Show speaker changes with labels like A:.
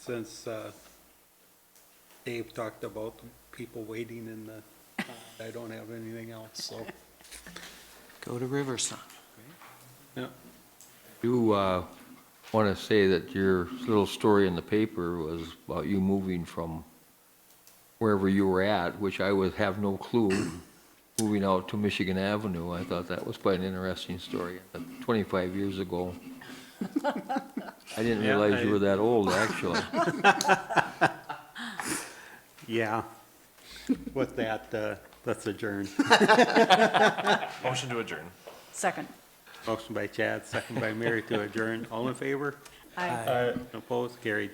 A: since uh, Dave talked about people waiting in the, I don't have anything else, so.
B: Go to Riverside.
A: Yeah.
C: You uh, want to say that your little story in the paper was about you moving from wherever you were at, which I would have no clue, moving out to Michigan Avenue. I thought that was quite an interesting story, uh, 25 years ago. I didn't
A: Yeah,
C: realize you
A: I-
C: were that old, actually.
A: Yeah. With that, uh, let's adjourn.
D: Motion to adjourn.
E: Second.
A: Motion by Chad, second by Mary to adjourn. All in favor?
E: Aye.
A: Opposed? Carried.